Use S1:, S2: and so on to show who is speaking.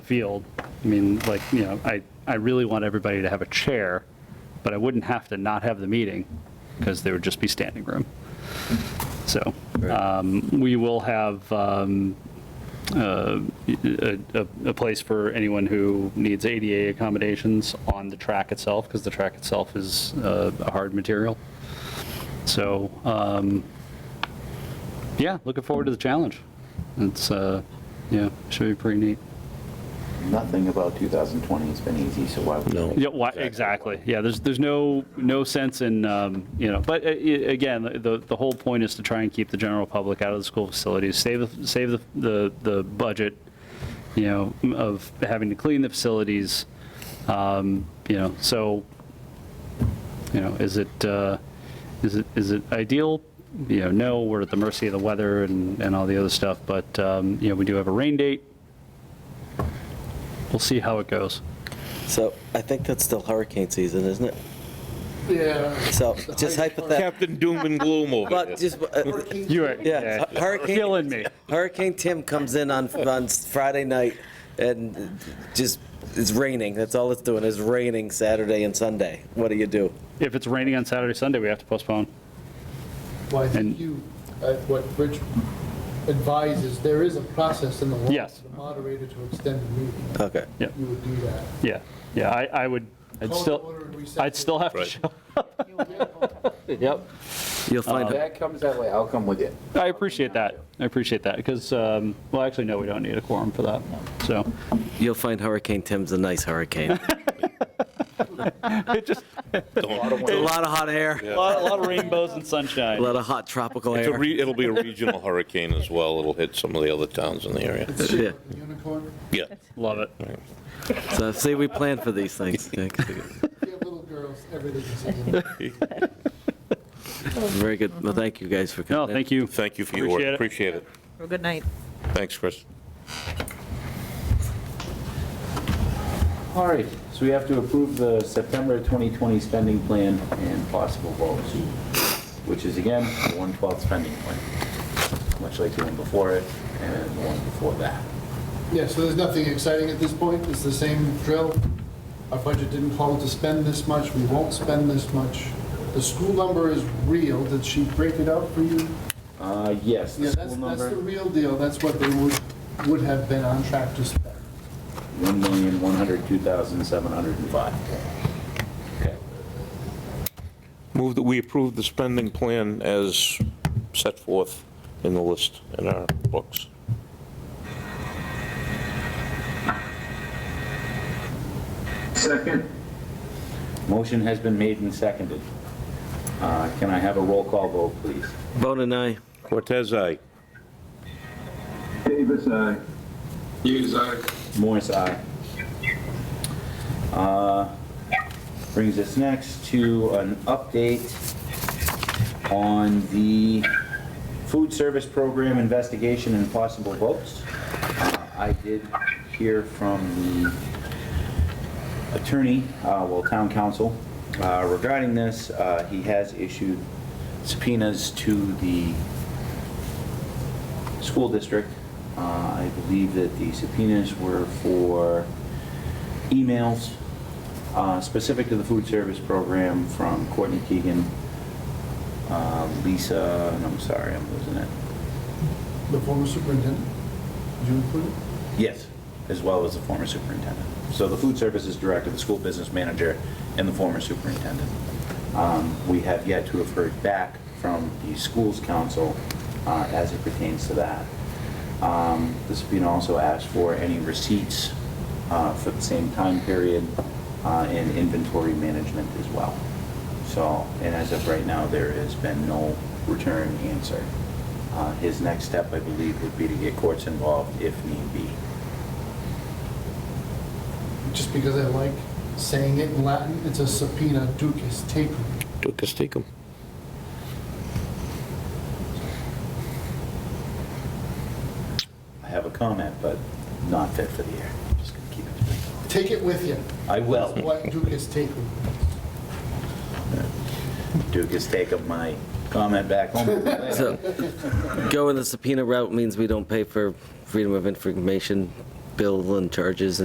S1: field. I mean, like, you know, I, I really want everybody to have a chair, but I wouldn't have to not have the meeting because there would just be standing room. So um, we will have um, uh, a, a- a place for anyone who needs ADA accommodations on the track itself because the track itself is uh, a hard material. So, um, yeah, looking forward to the challenge. It's, uh, yeah, should be pretty neat.
S2: Nothing about 2020 has been easy, so why would?
S3: No.
S1: Yeah, why, exactly. Yeah, there's, there's no, no sense in, um, you know, but uh, i- again, the, the whole point is to try and keep the general public out of the school facilities, save, the- save the, the, the budget, you know, of having to clean the facilities, um, you know, so, you know, is it, uh, is it, is it ideal? You know, no, we're at the mercy of the weather and, and all the other stuff, but, um, you know, we do have a rain date. We'll see how it goes.
S4: So I think that's still hurricane season, isn't it?
S5: Yeah.
S4: So just hypothetical,
S3: Captain Doom and Gloom over
S4: but
S3: there.
S4: just, uh,
S1: You are,
S4: yeah, hu- hurricane,
S1: killing me.
S4: Hurricane Tim comes in on, on Friday night and just, it's raining, that's all it's doing, is raining Saturday and Sunday. What do you do?
S1: If it's raining on Saturday, Sunday, we have to postpone.
S5: Well, I
S1: And-
S5: think you, uh, what Rich advises, there is a process in the law.
S1: Yes.
S5: for The moderator to extend the meeting,
S4: Okay.
S5: you would do that.
S1: Yeah, yeah, I, I would, I'd
S5: Call to
S1: still,
S5: order and recess.
S1: I'd still have to show.
S2: Yep.
S4: You'll find,
S3: Uh,
S2: That comes that way, I'll come with you.
S1: I appreciate that. I appreciate that, because, um, well, actually, no, we don't need a quorum for that, so.
S4: you'll find Hurricane Tim's a nice hurricane.
S1: It just,
S4: A lot of hot air,
S1: a lot, a lot of rainbows and sunshine.
S4: a lot of hot tropical
S3: It's a
S4: air.
S3: re- It'll be a regional hurricane as well. It'll hit some of the other towns in the area.
S5: It's
S4: Yeah.
S5: shaped like a unicorn.
S3: Yeah.
S1: Love it.
S4: So see, we plan for these things.
S5: If you have little girls, everything is easy.
S4: Very good, well, thank you guys for coming.
S1: No, Oh, thank you.
S3: Thank you for your work. Appreciate it.
S6: Well, Good night.
S3: Thanks, Chris.
S2: All right, so we have to approve the September 2020 spending plan and possible votes, which is again, the 112 spending plan, much like the one before it and the one before that.
S5: Yeah, so there's nothing exciting at this point, it's the same drill. Our budget didn't call to spend this much, we won't spend this much. The school number is real, did she break it out for you?
S2: Uh, yes,
S5: Yeah,
S2: the
S5: that's,
S2: school
S5: that's the
S2: number,
S5: real deal, that's what they would, would have been on track to spend.
S2: 1,102,705. Okay.
S3: Move that we approve the spending plan as set forth in the list in our books.
S2: Second. Motion has been made and seconded. Uh, Can I have a roll call vote, please?
S4: Bone and I,
S3: Cortez, aye.
S2: Davis, aye.
S7: Hughes, aye.
S2: Morris, aye. Uh, Brings us next to an update on the food service program investigation and possible votes. Uh, I did hear from the attorney, uh, well, town council, uh, regarding this. Uh, He has issued subpoenas to the school district. Uh, I believe that the subpoenas were for emails uh, specific to the food service program from Courtney Keegan, uh, Lisa, and I'm sorry, I'm losing it.
S5: The former superintendent, did you include it?
S2: Yes, as well as the former superintendent. So the food services director, the school business manager, and the former superintendent. Um, We have yet to have heard back from the schools council uh, as it pertains to that. Um, The subpoena also asked for any receipts uh, for the same time period uh, and inventory management as well. So, and as of right now, there has been no return answer. Uh, His next step, I believe, would be to get courts involved if need be.
S5: just because I like saying it in Latin, it's a subpoena ducis tecum.
S3: Dukas, take him.
S2: I have a comment, but not fit for the air. I'm Just gonna keep it.
S5: Take it with you.
S2: I will.
S5: What ducis tecum?
S2: Duke has taken my comment back home.
S4: so going the subpoena route means we don't pay for Freedom of Information bill and charges